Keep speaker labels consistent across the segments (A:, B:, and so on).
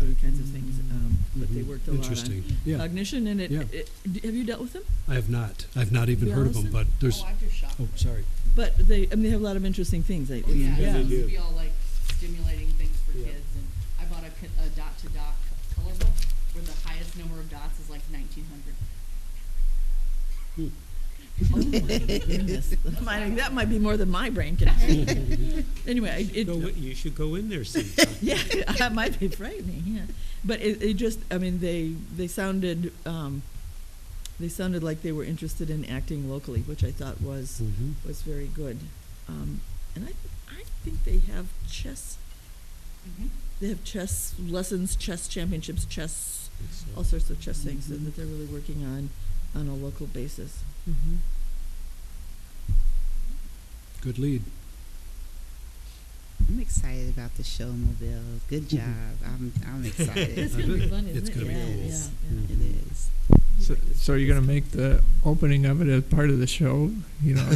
A: um, they worked a lot on.
B: Mm-hmm. Interesting, yeah.
A: Cognition, and it,
B: Yeah.
A: it, d- have you dealt with them?
B: I have not, I've not even
A: Yeah,
B: heard of them,
A: listen.
B: but there's,
C: Oh, I've just shot.
B: oh, sorry.
A: But they, I mean, they have a lot of interesting things, I,
C: Oh, yeah,
A: yeah.
C: it used to be all like stimulating things for
B: Yeah.
C: kids, and I bought a, co- a dot-to-dot co- color book where the highest number of dots is like nineteen hundred.
A: Oh Goodness. Mine- That might be more than my brain can handle. Anyway, I- it,
D: Go in- You should go in there sometime.
A: yeah, that might be frightening. Yeah, but it, it just, I mean, they they sounded um, they sounded like they were interested in acting locally, which I thought was
B: Mhm.
A: was very good. Um, and I I think they have chess.
B: Mm-hmm.
C: Mhm.
A: They have chess lessons, chess championships, chess, all
D: So,
A: sorts of chess things that- that they're really working on on a local basis.
B: Good lead.
E: I'm excited about the show, Mobile. Good job. I'm, I'm excited.
A: Mm-hmm. It's
B: I
A: gonna be
B: bet
A: fun, isn't
B: it's
A: it?
B: gonna be
A: yeah,
B: cool.
A: yeah, yeah.
E: It is.
F: So, so you're gonna make the opening of it as part of the show, you know?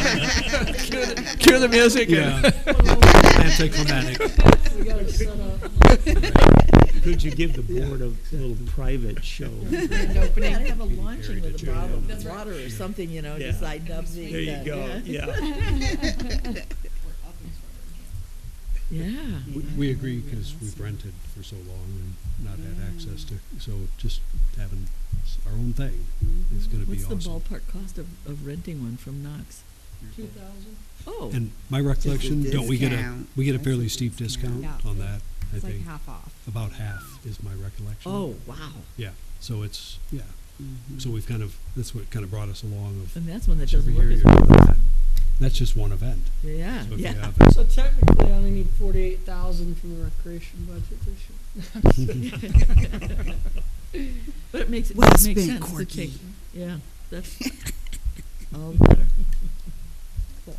F: Cue the music.
B: Mm-hmm. Yeah. Anticlimactic.
A: We gotta shut up.
D: Could you give the board a little private show?
A: Grand opening. Yeah, have a launching with a
B: Yeah.
A: bottle
C: That's
A: of
C: right.
A: water or something, you know,
D: Yeah.
A: just lighten up. the-
D: There you go, yeah.
C: We're up and starting.
A: Yeah.
B: We- We agree because we've rented for so long and not
A: Mm.
B: had access to, so just having s- our own thing is going to be
A: What's the
B: awesome.
A: ballpark cost of, of renting one from Knox? Two thousand. Oh,
B: And my recollection,
E: Just a
B: don't we get a,
E: discount.
B: we get a
E: That's a
B: fairly steep
E: discount.
B: discount on that, I
G: It's like
B: think.
G: half off.
B: About half is my recollection.
A: oh, wow.
B: Yeah, so it's, yeah, so we've kind of, that's what kind of brought us along of.
A: And that's one that
B: so
A: doesn't
B: every
A: work
B: year
A: as
B: you're
A: well.
B: doing that. That's just one event.
A: Yeah,
B: So if you
A: yeah.
B: have it-
H: So technically, I only need forty-eight thousand from the recreation budget this year.
A: But it makes, it
E: Well
A: makes
E: spent,
A: sense to
E: Corky.
A: take, yeah, that's all the better. Cool.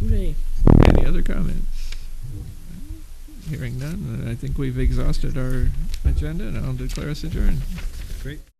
A: Hooray.
F: Any other comments? Hearing none, I think we've exhausted our agenda, and I'll declare us adjourned.
B: Great.